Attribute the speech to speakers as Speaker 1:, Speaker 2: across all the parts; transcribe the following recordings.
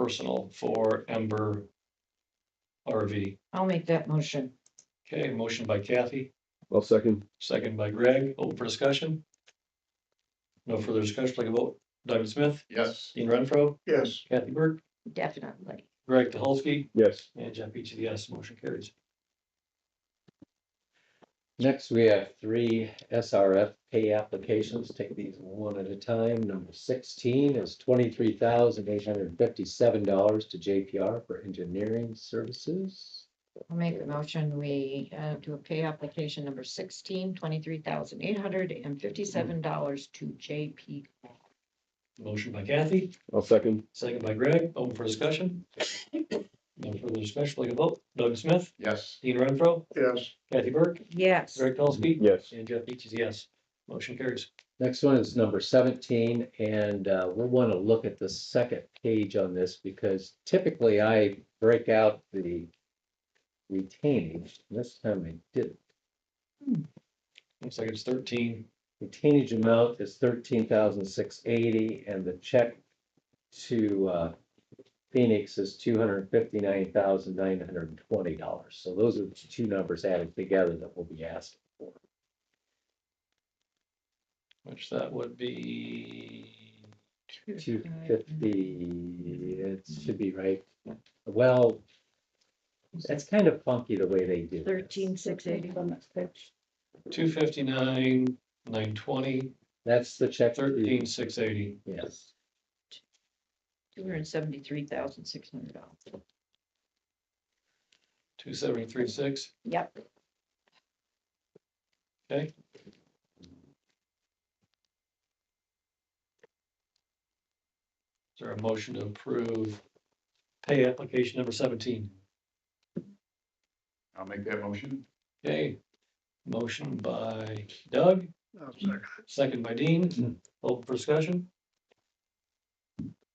Speaker 1: personal for Ember RV.
Speaker 2: I'll make that motion.
Speaker 1: Okay, motion by Kathy,
Speaker 3: I'll second.
Speaker 1: second by Greg, open for discussion. No further discussion, take a vote. David Smith,
Speaker 4: Yes.
Speaker 1: Dean Renfro,
Speaker 4: Yes.
Speaker 1: Kathy Burke,
Speaker 2: Definitely.
Speaker 1: Greg Dolsky,
Speaker 3: Yes.
Speaker 1: and Jeff Beechey, yes, motion carries.
Speaker 5: Next, we have three SRF pay applications. Take these one at a time. Number sixteen is twenty-three thousand eight hundred fifty-seven dollars to JPR for engineering services.
Speaker 2: I'll make the motion. We uh, do a pay application number sixteen, twenty-three thousand eight hundred and fifty-seven dollars to JP.
Speaker 1: Motion by Kathy,
Speaker 3: I'll second.
Speaker 1: second by Greg, open for discussion. No further discussion, take a vote. Doug Smith,
Speaker 4: Yes.
Speaker 1: Dean Renfro,
Speaker 4: Yes.
Speaker 1: Kathy Burke,
Speaker 2: Yes,
Speaker 1: Greg Dolsky,
Speaker 3: Yes.
Speaker 1: and Jeff Beechey, yes, motion carries.
Speaker 5: Next one is number seventeen, and uh, we'll want to look at the second page on this because typically I break out the retainage. This time I didn't.
Speaker 1: Looks like it's thirteen.
Speaker 5: The teenage amount is thirteen thousand six eighty, and the check to uh, Phoenix is two hundred fifty-nine thousand nine hundred and twenty dollars. So those are the two numbers added together that will be asked for.
Speaker 1: Which that would be,
Speaker 5: Two fifty, it should be right. Well, that's kind of funky the way they do. this.
Speaker 2: thirteen, six eighty.
Speaker 1: two fifty-nine, nine twenty,
Speaker 5: That's the check. to-
Speaker 1: thirteen, six eighty.
Speaker 5: Yes.
Speaker 2: Two hundred and seventy-three thousand six hundred dollars.
Speaker 1: Two seventy-three, six,
Speaker 2: Yep,
Speaker 1: is there a motion to approve pay application number seventeen?
Speaker 4: I'll make that motion.
Speaker 1: Okay, motion by Doug, second by Dean, open for discussion.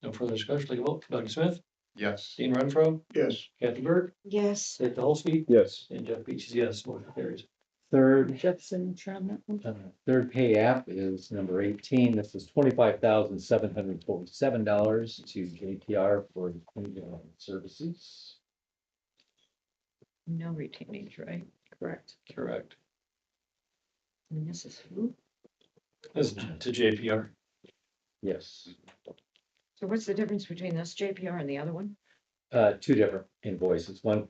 Speaker 1: No further discussion, take a vote, Doug Smith,
Speaker 4: Yes.
Speaker 1: Dean Renfro,
Speaker 4: Yes.
Speaker 1: Kathy Burke,
Speaker 2: yes.
Speaker 1: Dick Dolsky,
Speaker 3: Yes.
Speaker 1: and Jeff Beechey, yes, motion carries.
Speaker 5: Third
Speaker 2: Jefferson, Trum.
Speaker 5: Uh, Third pay app is number eighteen. This is twenty-five thousand seven hundred forty-seven dollars to JTR for engineering services.
Speaker 2: No retainage, right? Correct.
Speaker 1: Correct.
Speaker 2: And this is who?
Speaker 1: This is to JPR.
Speaker 5: Yes,
Speaker 2: So what's the difference between this JPR and the other one?
Speaker 5: uh, two different invoices. One,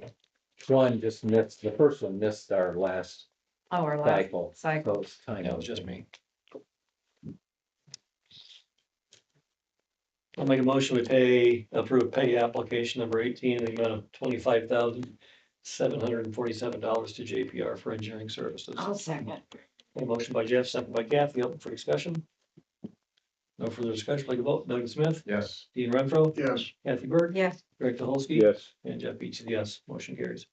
Speaker 5: one just missed, the first one missed our last
Speaker 2: Oh, Our last
Speaker 5: cycle.
Speaker 2: cycle.
Speaker 5: So it's kind
Speaker 1: That
Speaker 5: of
Speaker 1: was oh, just me. I'll make a motion to pay, approve pay application number eighteen, in the amount of twenty-five thousand, seven hundred and forty-seven dollars to JPR for engineering services.
Speaker 2: I'll second.
Speaker 1: A motion by Jeff, second by Kathy, open for discussion. No further discussion, take a vote. Doug Smith,
Speaker 4: Yes.
Speaker 1: Dean Renfro,
Speaker 4: Yes.
Speaker 1: Kathy Burke,
Speaker 2: Yes,
Speaker 1: Greg Dolsky,
Speaker 3: Yes.
Speaker 1: and Jeff Beechey, yes, motion carries.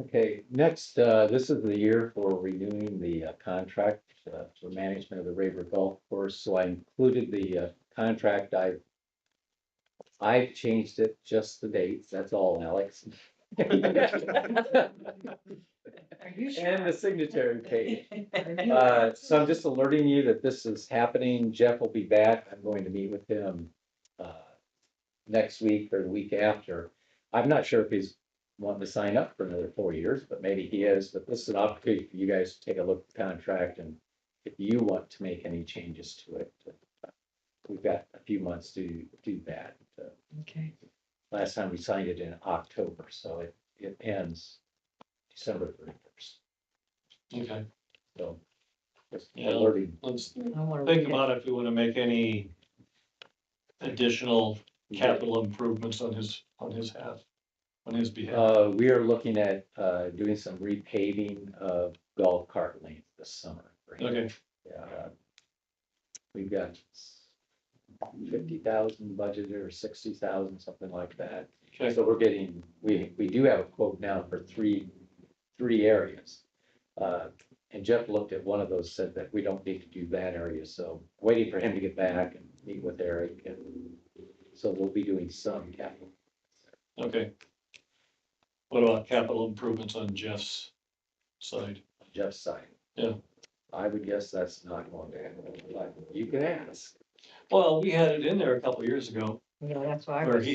Speaker 5: Okay, next, uh, this is the year for renewing the uh, contract uh, for management of the Raver Golf Course, so I included the uh, contract, I I've changed it, just the dates, that's all, Alex. And
Speaker 2: are you
Speaker 5: the
Speaker 2: sure?
Speaker 5: signatory page. Uh, so I'm just alerting you that this is happening. Jeff will be back. I'm going to meet with him, uh, next week or the week after. I'm not sure if he's wanting to sign up for another four years, but maybe he is, but this is an opportunity for you guys to take a look at the contract and if you want to make any changes to it. uh, We've got a few months to do that. Uh,
Speaker 2: Okay,
Speaker 5: Last time we signed it in October, so it, it ends December thirty first,
Speaker 1: Okay,
Speaker 5: so. Just
Speaker 1: Yeah.
Speaker 5: alerting.
Speaker 1: let's
Speaker 2: I wanna
Speaker 1: think
Speaker 2: read it.
Speaker 1: about if we want to make any additional capital improvements on his, on his half, on his behalf.
Speaker 5: Uh, we are looking at, uh, doing some repaving of golf cart lanes this summer.
Speaker 1: Okay,
Speaker 5: Yeah. uh, We've got fifty thousand budgeted or sixty thousand, something like that.
Speaker 1: okay,
Speaker 5: So we're getting, we, we do have a quote now for three, three areas. Uh, and Jeff looked at one of those, said that we don't need to do that area, so waiting for him to get back and meet with Eric and so we'll be doing some capital.
Speaker 1: okay. What about capital improvements on Jeff's side?
Speaker 5: Jeff's side.
Speaker 1: Yeah.
Speaker 5: I would guess that's not going to happen, but you can ask.
Speaker 1: Well, we had it in there a couple years ago.
Speaker 2: You know, that's why I
Speaker 1: Or
Speaker 2: was.